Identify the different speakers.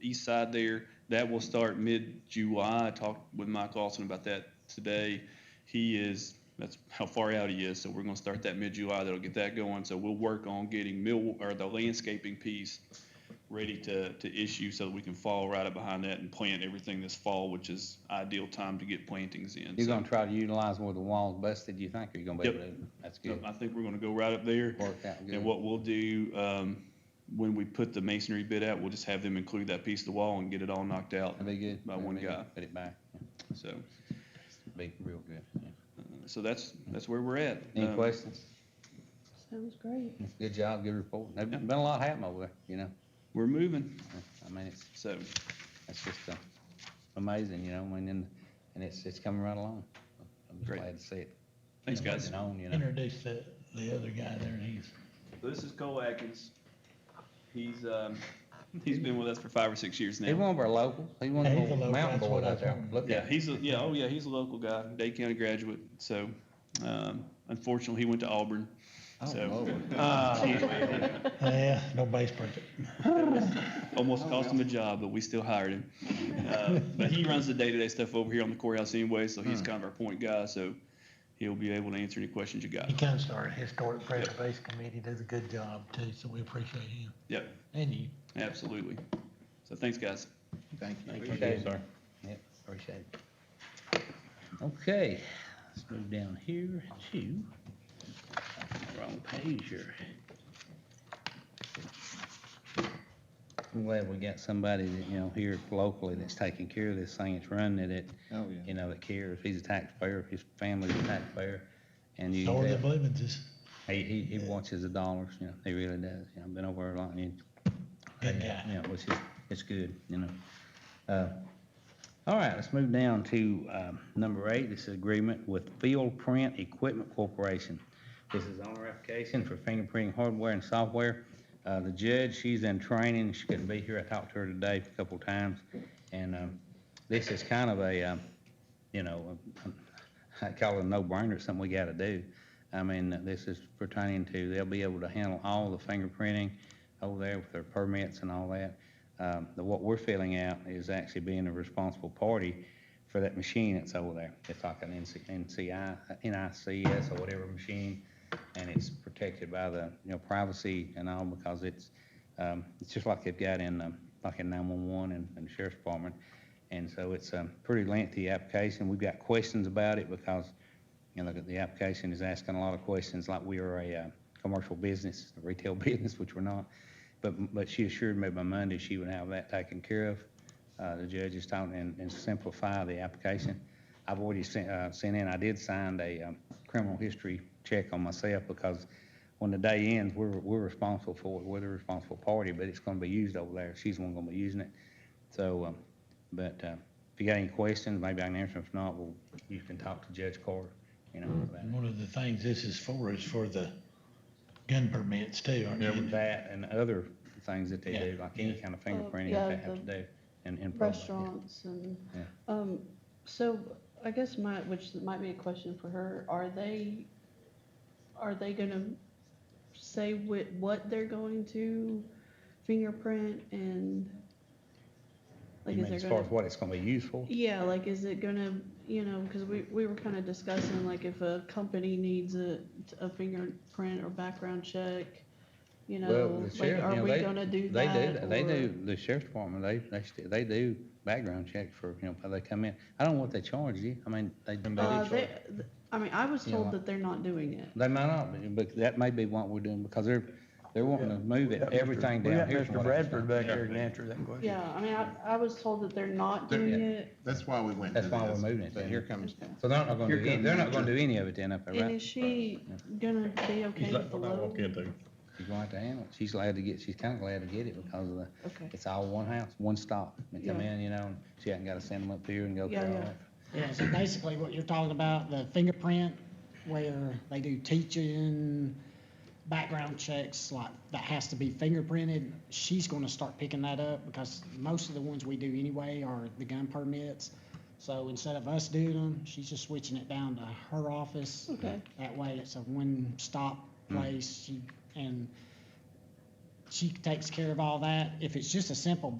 Speaker 1: east side there. That will start mid-July. I talked with Mike Lawson about that today. He is, that's how far out he is, so we're gonna start that mid-July. That'll get that going. So we'll work on getting mill, or the landscaping piece ready to, to issue so that we can fall right up behind that and plant everything this fall, which is ideal time to get plantings in.
Speaker 2: You're
Speaker 1: So-
Speaker 2: gonna try to utilize where the wall's busted, you think, or you gonna be able to? That's
Speaker 1: So
Speaker 2: good.
Speaker 1: I think we're gonna go right up there.
Speaker 2: Worked out good.
Speaker 1: And what we'll do, um, when we put the masonry bid out, we'll just have them include that piece of the wall and get it all knocked out.
Speaker 2: That'd be good.
Speaker 1: By one
Speaker 2: That'd be good.
Speaker 1: guy.
Speaker 2: Put it back.
Speaker 1: So,
Speaker 2: Be real good. yeah.
Speaker 1: uh, so that's, that's where we're at.
Speaker 2: Any
Speaker 1: Um,
Speaker 2: questions?
Speaker 3: Sounds great.
Speaker 2: Good job, good report. There's been a lot happening over there, you know?
Speaker 1: We're moving,
Speaker 2: I mean, it's,
Speaker 1: so,
Speaker 2: it's just uh, amazing, you know, and then, and it's, it's coming right along. I'm just
Speaker 1: Great.
Speaker 2: glad to see it.
Speaker 1: thanks, guys.
Speaker 2: moving On, you know?
Speaker 4: Introduce the, the other guy there, he's,
Speaker 1: So this is Cole Atkins. He's, um, he's been with us for five or six years
Speaker 2: He's
Speaker 1: now.
Speaker 2: one of our locals. He's one
Speaker 4: Yeah, he's a
Speaker 2: of the
Speaker 4: local,
Speaker 2: mountain
Speaker 4: that's what
Speaker 2: boys
Speaker 4: I
Speaker 2: out there.
Speaker 4: told him.
Speaker 2: Look
Speaker 1: Yeah,
Speaker 2: at him.
Speaker 1: he's a, yeah, oh yeah, he's a local guy, Day County graduate, so, um, unfortunately, he went to Auburn.
Speaker 2: Oh,
Speaker 1: so-
Speaker 2: Lord.
Speaker 1: Uh,
Speaker 4: yeah, nobody's perfect.
Speaker 1: Almost cost him a job, but we still hired him. Uh, But he runs the day-to-day stuff over here on the courthouse anyway, so
Speaker 2: Hmm.
Speaker 1: he's kind of our point guy, so he'll be able to answer any questions you got.
Speaker 4: He kind of started Historic Preservation Committee, does a good job too, so we appreciate him
Speaker 1: Yep,
Speaker 4: and you.
Speaker 1: absolutely. So thanks, guys.
Speaker 5: Thank you.
Speaker 2: Okay, sir. Yep, appreciate it. Okay, let's move down here to, wrong page here. I'm glad we got somebody that, you know, here locally that's taking care of this thing, that's running it,
Speaker 5: Oh,
Speaker 2: you
Speaker 5: yeah.
Speaker 2: know, that cares. He's a taxpayer, his family's a taxpayer, and you.
Speaker 4: So are the
Speaker 2: have-
Speaker 4: Bloominses.
Speaker 2: He, he, he watches the dollars, you know, he really does, you know, I've been over a lot, and,
Speaker 4: Good guy.
Speaker 2: yeah, which is, it's good, you know. Uh, All right, let's move down to, um, number eight, this is agreement with Field Print Equipment Corporation. This is our application for fingerprinting hardware and software. Uh, the judge, she's in training, she couldn't be here, I talked to her today a couple times, and, um, this is kind of a, um, you know, I call it a no-brainer, it's something we gotta do. I mean, this is pertaining to, they'll be able to handle all the fingerprinting over there with their permits and all that. Um, the, what we're filling out is actually being a responsible party for that machine that's over there. It's like an NC, NCI, NICS or whatever machine, and it's protected by the, you know, privacy and all because it's, um, it's just like they've got in, um, like in nine-one-one and, and sheriff's department. And so it's a pretty lengthy application. We've got questions about it because, you know, the- the application is asking a lot of questions like we are a, uh, commercial business, a retail business, which we're not. But, but she assured me by Monday she would have that taken care of. Uh, the judge is talking and, and simplify the application. I've already sent, uh, sent in, I did sign a, um, criminal history check on myself because when the day ends, we're, we're responsible for it, we're the responsible party, but it's gonna be used over there. She's the one gonna be using it. So, um, but, uh, if you got any questions, maybe I can answer them. If not, well, you can talk to Judge Carter, you know, about it.
Speaker 4: And one of the things this is for is for the gun permits too, aren't
Speaker 2: Yeah, with
Speaker 4: you?
Speaker 2: that and other things that they
Speaker 4: Yeah.
Speaker 2: do, like any kind of fingerprinting that
Speaker 3: yeah,
Speaker 2: they have
Speaker 3: the
Speaker 2: to do in, in. public, yeah.
Speaker 3: Restaurants and,
Speaker 2: Yeah.
Speaker 3: um, so I guess my, which might be a question for her, are they, are they gonna say what, what they're going to fingerprint and? like
Speaker 2: You mean
Speaker 3: is there
Speaker 2: as
Speaker 3: gonna-
Speaker 2: far as what it's gonna be used for?
Speaker 3: Yeah, like, is it gonna, you know, because we, we were kind of discussing, like, if a company needs a, a fingerprint or background check, you
Speaker 2: Well,
Speaker 3: know,
Speaker 2: the
Speaker 3: like,
Speaker 2: sheriff, you
Speaker 3: are
Speaker 2: know,
Speaker 3: we
Speaker 2: they,
Speaker 3: gonna do
Speaker 2: they
Speaker 3: that?
Speaker 2: do, that. they
Speaker 3: or-
Speaker 2: do, the sheriff's department, they, they, st- they do background checks for, you know, how they come in. I don't know what they charge you, I mean, they. they
Speaker 3: Uh,
Speaker 2: do
Speaker 3: they,
Speaker 2: charge-
Speaker 3: th- I mean, I was
Speaker 2: You know,
Speaker 3: told
Speaker 2: like-
Speaker 3: that they're not doing it.
Speaker 2: They might not, but, but that may be what we're doing, because they're, they're wanting to move it, everything
Speaker 6: We
Speaker 2: down
Speaker 6: got
Speaker 2: here. from
Speaker 6: Mr.
Speaker 2: what I understand.
Speaker 6: Bradford back here to answer that question.
Speaker 3: Yeah, I mean, I, I was told that they're not
Speaker 5: They're-
Speaker 3: doing it.
Speaker 5: That's why we went to
Speaker 2: That's
Speaker 5: this.
Speaker 2: why we're moving it.
Speaker 5: But here comes,
Speaker 3: Okay.
Speaker 2: So they're not gonna
Speaker 5: Here
Speaker 2: do, any-
Speaker 5: comes
Speaker 2: they're not
Speaker 5: Richard.
Speaker 2: gonna do any of it then up there,
Speaker 3: And
Speaker 2: right?
Speaker 3: is she gonna be okay with the load?
Speaker 6: into.
Speaker 2: She's going to handle it. She's glad to get, she's kinda glad to get it because of the,
Speaker 3: Okay,
Speaker 2: it's all one house, one stop. They come
Speaker 3: Yeah.
Speaker 2: in, you know, and she hasn't gotta send them up here and go through
Speaker 3: Yeah,
Speaker 2: all
Speaker 3: yeah.
Speaker 2: that.
Speaker 7: Yeah, so basically what you're talking about, the fingerprint, where they do teaching, background checks, like, that has to be fingerprinted, she's gonna start picking that up, because most of the ones we do anyway are the gun permits. So instead of us doing them, she's just switching it down to her office.
Speaker 3: Okay.
Speaker 7: That way, it's a one-stop place, she, and she takes care of all that. If it's just a simple